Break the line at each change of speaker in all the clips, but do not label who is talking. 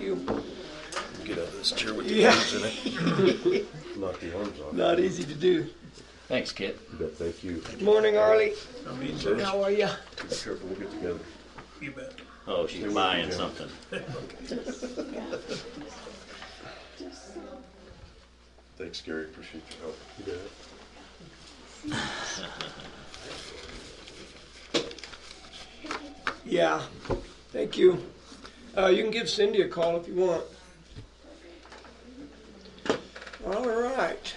you.
Get out of this chair with
Yeah.
your arms in it.
Knock the arms off.
Not easy to do.
Thanks, Kit.
You bet. Thank you.
Morning, Arlie.
I mean,
How are ya?
Be careful. We'll get together.
you bet.
Oh, she's buying something.
Thanks, Gary. Appreciate your help. You bet.
Yeah. Thank you. Uh, you can give Cindy a call if you want. All right.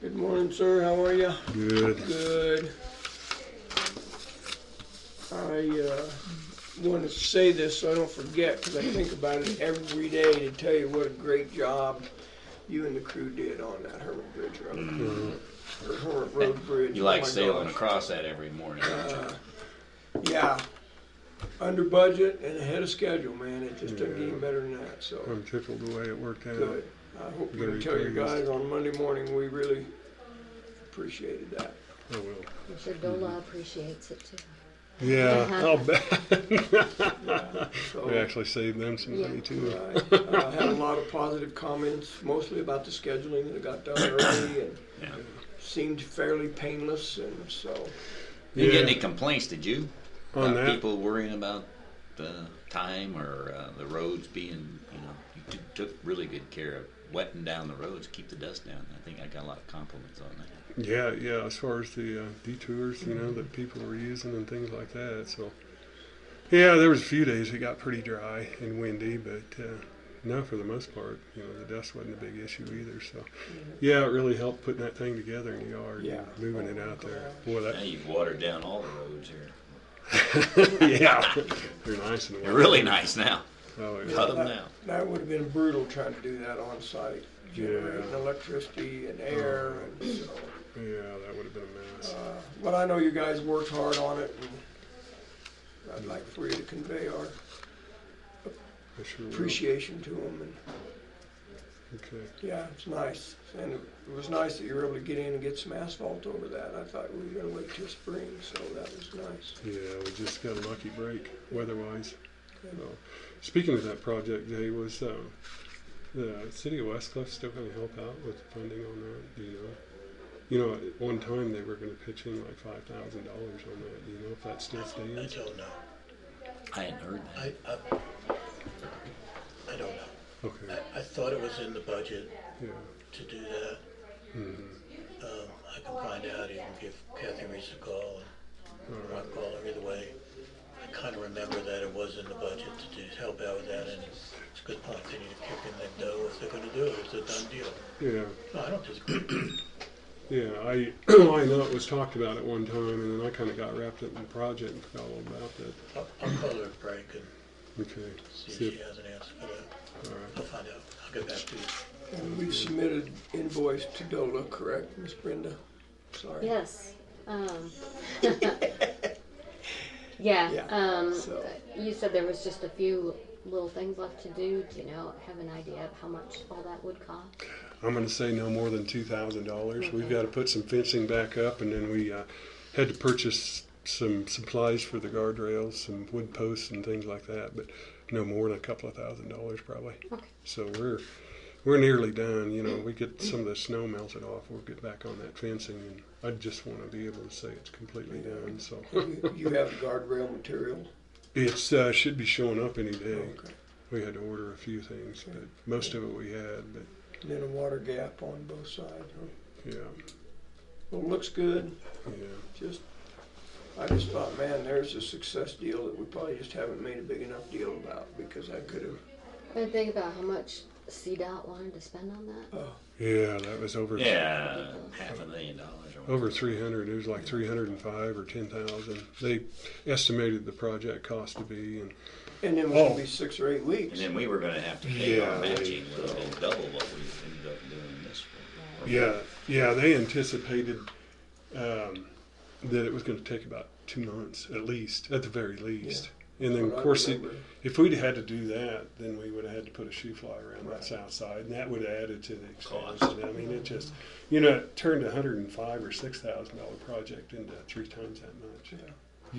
Good morning, sir. How are you?
Good.
Good. I uh, want to say this so I don't forget because I think about it every day to tell you what a great job you and the crew did on that Hermit Bridge Road. Or Hermit Road Bridge.
You
oh
like
my
sailing
gosh.
across that every morning, don't you?
Yeah. Under budget and ahead of schedule, man. It just doesn't get any better than that. So
I'm tickled the way it worked out.
good. I hope you can
Very
tell your
pleased.
guys on Monday morning we really appreciated that.
I will.
I'm sure Dola appreciates it too.
Yeah, I'll bet.
So,
We actually saved them some money
Yeah.
too.
Right. Uh, I had a lot of positive comments, mostly about the scheduling that got done early and
Yeah.
seemed fairly painless, and so,
Didn't
Yeah.
get any complaints, did you?
On
about
that?
people worrying about the time or uh, the roads being, you know, you t- took really good care of wetting down the roads, keep the dust down. I think I got a lot of compliments on that.
Yeah, yeah. As far as the uh, detours, you know, that people were using and things like that. So, yeah, there was a few days it got pretty dry and windy, but uh, no, for the most part, you know, the dust wasn't a big issue either. So, yeah, it really helped putting that thing together in the yard,
Yeah. Oh,
and moving it out there. Boy,
Now
that
you've watered down all the roads here.
yeah, they're nice and
They're really nice now.
Oh, yeah.
Cut them now.
that would have been brutal trying to do that on site, generating
Yeah.
electricity and air, and so.
yeah, that would have been a mess.
uh, But I know you guys worked hard on it, and I'd like for you to convey our
I sure will.
appreciation to them, and,
Okay.
yeah, it's nice. And it was nice that you were able to get in and get some asphalt over that. I thought we were gonna wait till spring, so that was nice.
Yeah, we just got a lucky break weather-wise. So, speaking of that project, Jay, was um, the city of Westcliff still going to help out with funding on that? Do you know? You know, at one time they were going to pitch in like five thousand dollars on that. Do you know if that still
I
stands?
don't know.
I hadn't heard that.
I, I, I don't know.
Okay.
I, I thought it was in the budget
Yeah.
to do that.
Mm-hmm.
Um, I can find out, even give Kathy Reese a call,
All
or I'll
right.
call her either way. I kind of remember that it was in the budget to do, help out with that, and it's a good point, they need to kick in that dough if they're gonna do it, it's a done deal.
Yeah.
No, I don't disagree.
Yeah. I I know it was talked about at one time, and then I kind of got wrapped up in the project and forgot all about that.
I'll, I'll call her at break and
Okay.
see if
See
she
if,
has an answer for that.
all right.
I'll find out, I'll get back to you.
And we've submitted invoice to DOLA, correct, Miss Brenda? Sorry.
Yes. Um, yeah.
Yeah,
Um,
so-
You said there was just a few little things left to do. Do you know, have an idea of how much all that would cost?
I'm going to say no more than two thousand dollars. We've got to put some fencing back up, and then we uh, had to purchase some supplies for the guardrails, some wood posts, and things like that. But no more than a couple of thousand dollars, probably.
Okay.
So we're we're nearly done. You know, we get some of the snow melted off. We'll get back on that fencing, and I just want to be able to say it's completely done. So
You you have the guardrail material?
it's uh, should be showing up any day.
Okay.
We had to order a few things, but most of it we had. But
And Then a water gap on both sides. huh?
yeah,
Well, it looks good,
yeah.
just, I just thought, man, there's a success deal that we probably just haven't made a big enough deal about, because I could have,
And think about how much CDOT wanted to spend on that.
uh,
Yeah, that was over.
Yeah, half a million dollars. or whatever.
Over 300, it was like 305 or 10,000. They estimated the project cost to be, and
and then it
Oh.
would be six or eight
And
weeks.
then we were going to have to pay our
Yeah.
matching, which is double what we ended up doing this for.
yeah, yeah, they anticipated um, that it was going to take about two months at least, at the very least. And then,
Well,
of
I
course, it,
remember.
if we'd had to do that, then we would have had to put a shoe fly around that south side, and that would have added to the expense.
Cost.
And I mean, it just, you know, it turned a hundred and five or six thousand dollar project into three times that much.
Yeah.